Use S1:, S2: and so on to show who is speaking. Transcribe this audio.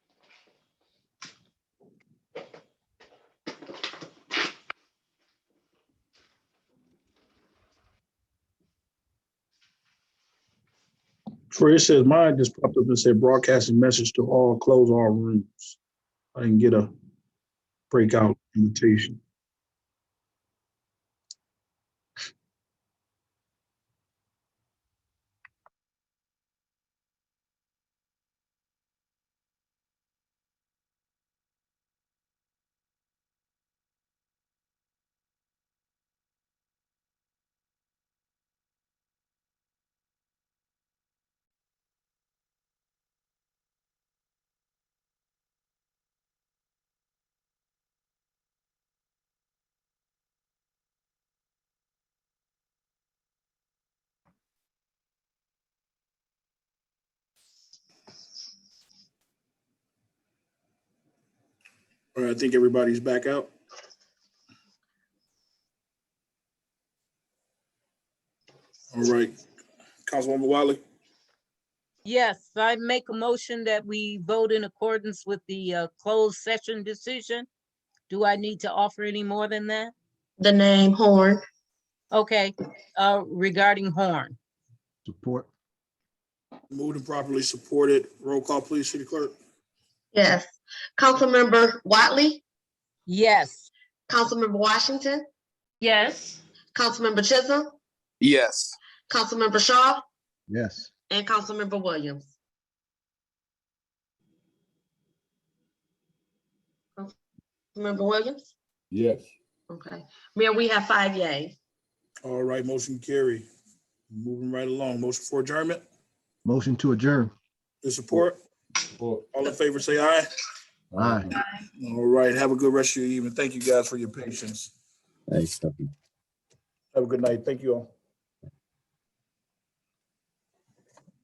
S1: Troy, it says mine just popped up and said broadcasting message to all, close all rooms. I didn't get a breakout invitation. All right, I think everybody's back out. All right, Councilwoman Wiley,
S2: Yes, I make a motion that we vote in accordance with the uh, closed session decision. Do I need to offer any more than that?
S3: the name Horn.
S2: Okay, uh, regarding Horn,
S4: Support.
S1: moved and properly supported. Roll call, please, City Clerk.
S3: Yes. Councilmember Watley,
S2: yes.
S3: Councilmember Washington,
S5: Yes.
S3: Councilmember Chisholm,
S6: Yes.
S3: Councilmember Shaw,
S4: Yes.
S3: and Councilmember Williams. Member Williams?
S4: Yes.
S3: Okay. Mayor, we have five yays.
S1: All right, motion carry. Moving right along. Motion for adjournment,
S4: Motion to adjourn.
S1: the support. All in favor, say aye.
S4: Aye.
S1: All right, have a good rest of your evening. Thank you guys for your patience.
S7: Thanks, Stephanie.
S1: Have a good night. Thank you all.